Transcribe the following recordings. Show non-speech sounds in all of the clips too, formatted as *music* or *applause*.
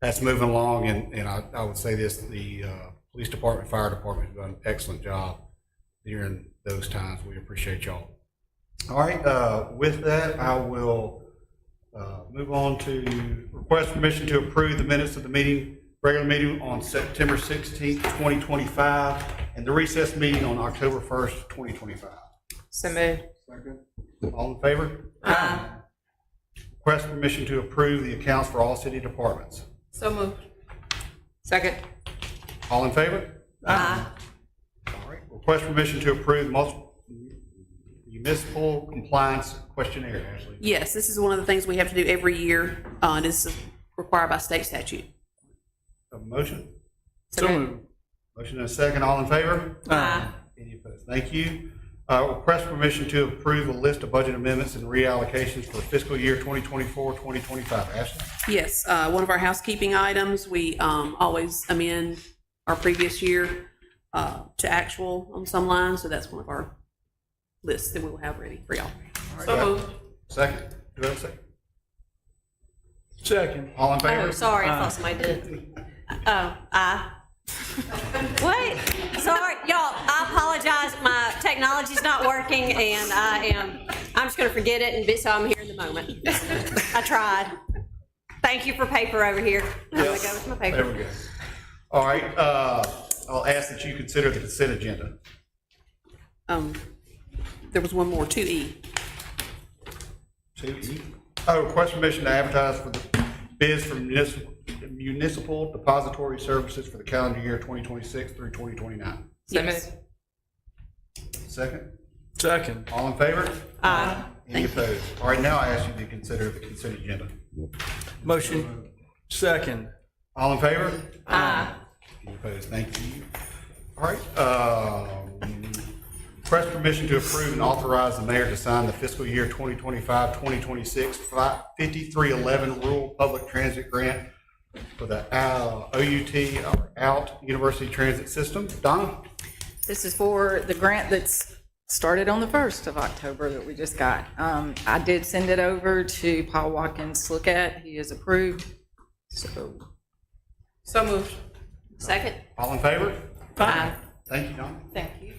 that's moving along, and, and I, I would say this, the, uh, police department, fire department have done an excellent job during those times. We appreciate y'all. All right, uh, with that, I will, uh, move on to request permission to approve the minutes of the meeting, regular meeting on September sixteenth, twenty twenty-five, and the recess meeting on October first, twenty twenty-five. So moved. Second. All in favor? Request permission to approve the accounts for all city departments. So moved. Second. All in favor? Aye. All right. Request permission to approve multi- municipal compliance questionnaire, Ashley. Yes, this is one of the things we have to do every year. Uh, this is required by state statute. Have a motion? So moved. Motion and a second. All in favor? Aye. Any opposed? Thank you. Uh, Request permission to approve a list of budget amendments and reallocations for fiscal year 2024, 2025. Ashley? Yes, uh, one of our housekeeping items, we, um, always amend our previous year, uh, to actual on some lines, so that's one of our lists that we'll have ready for y'all. So moved. Second. Do I have a second? Second. All in Oh, favor? sorry, I thought somebody did. Oh, aye. What? Sorry, y'all, I apologize, my technology's not working, and I am, I'm just gonna forget it, and be- so I'm here in the moment. I tried. Thank you for paper over here. I'm gonna go with my There paper. we go. All right, uh, I'll ask that you consider the consent agenda. Um, there was one more, two E. Two E. Oh, request permission to advertise for the bids for municipal, municipal depository services for the calendar year twenty twenty-six through twenty twenty-nine. So Yes. moved. Second, Second. all in favor? Aye. Any opposed? All right, now I ask you to consider the consent agenda. Motion. Second. All in favor? Aye. Any opposed? Thank you. All right, um, request permission to approve and authorize the mayor to sign the fiscal year 2025, 2026 fi- 5311 Rural Public Transit Grant for the uh, OUT, or OUT University Transit System. Donna? This is for the grant that's started on the 1st of October that we just got. Um, I did send it over to Paul Watkins to look at. He is approved. So So moved. Second? All in favor? Aye. Thank you, Donna. Thank you.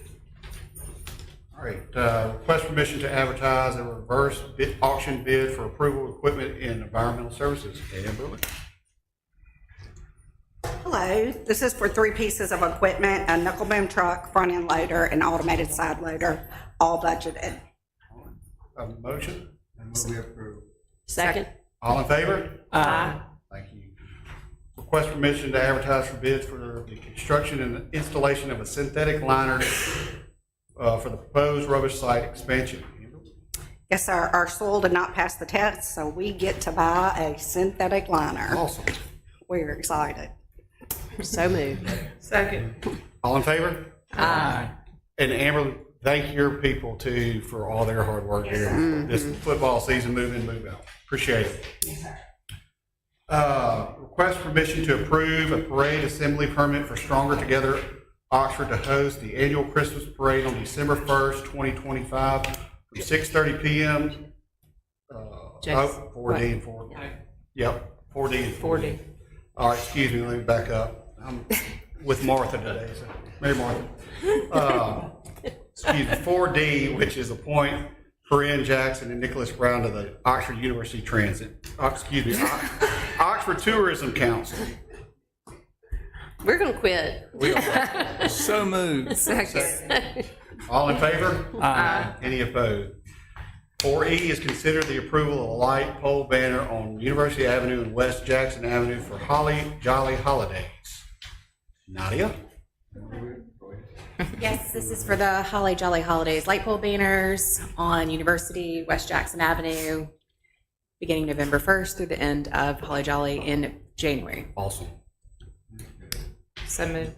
All right, uh, request permission to advertise a reverse bid auction bid for approval of equipment in environmental services. Dan Brewer? Hello, this is for three pieces of equipment, a knuckle boom truck, front end loader, and automated side loader, all budgeted. A motion? And move we approve. Second? All in favor? Aye. Thank you. Request permission to advertise for bids for the construction and installation of a synthetic liner uh, for the proposed rubbish site expansion. Yes, sir, our soil did not pass the test, so we get to buy a synthetic liner. Awesome. We're excited. So moved. Second. All in favor? Aye. And Amber, thank your people too for all their hard work during this football season, move in, move out. Appreciate it. Uh, Request permission to approve a parade assembly permit for Stronger Together Oxford to host the annual Christmas parade on December 1st, 2025, from 6:30 PM. uh, Oh, 4D and 4. Yep, 4D and 4D. All right, excuse me, let me back up. I'm with Martha today, so, Mary Martha. Um, Excuse me, 4D, which is appoint Corinne Jackson and Nicholas Brown to the Oxford University Transit, uh, excuse me, Ox- Oxford Tourism Council. We're gonna quit. We are- So moved. Second. All in favor? Aye. Any opposed? 4E E is considered the approval of a light pole banner on University Avenue and West Jackson Avenue for Holly Jolly Holidays. Nadia? Yes, this is for the Holly Jolly Holidays light pole banners on University, West Jackson Avenue, beginning November 1st through the end of Holly Jolly in January. Awesome. So moved.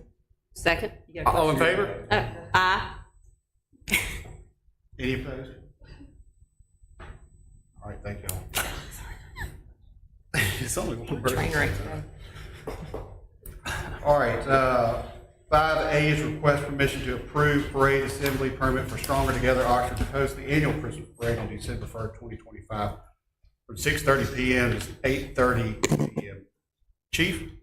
Second? All in favor? Oh, Aye. Any opposed? All right, thank y'all. *laughs* It's only one person. All right, uh, five A is request permission to approve parade assembly permit for Stronger Together Oxford to host the annual Christmas parade on December first, twenty twenty-five, from six thirty PM to eight thirty PM. Chief?